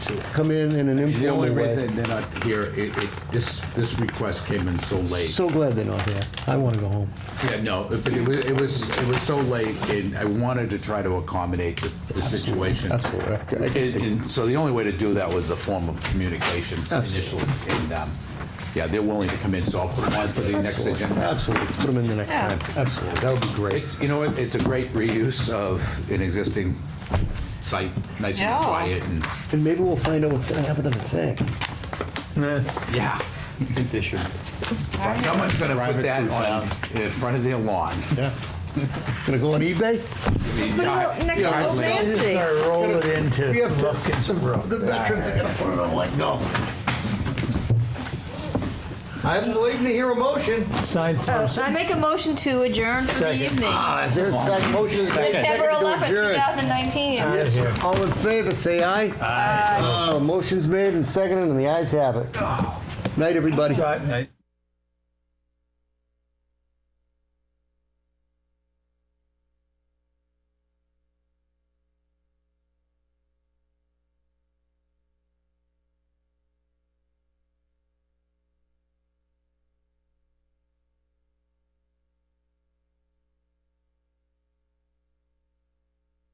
come in in an The only informal way. reason they're not here, it, it, this, this request came in so late. So glad they're not here. I want to go home. Yeah, no, but it was, it was, it was so late and I wanted to try to accommodate this, the situation. Absolutely. I- I can And, see. and so the only way to do that was a form of communication initially. And, um, yeah, they're willing to come in, so I'll put them on for the next Absolutely, agenda. absolutely. Put them in the next time. Absolutely, that would be great. It's, you know what, it's a great reuse of an existing site, nice and Yeah. quiet and, And maybe we'll find out what's gonna happen to the tank. yeah. They should. Someone's gonna put Private that cruise on, in front of their lawn. Yeah. Gonna go on eBay? Put it next to Old Nancy. Or roll it into We have to- Lufkin's Brook. The veterans are gonna put it on like go. I'm waiting to hear a motion. Sign Oh, first. I make a motion to adjourn for the Second. evening. Is there a second motion? September Second to 11th, adjourn. 2019. Yes, all in favor, say aye. Uh, Oh. Aye. Motion's made and seconded, and the ayes have it. Night, everybody. Right, mate.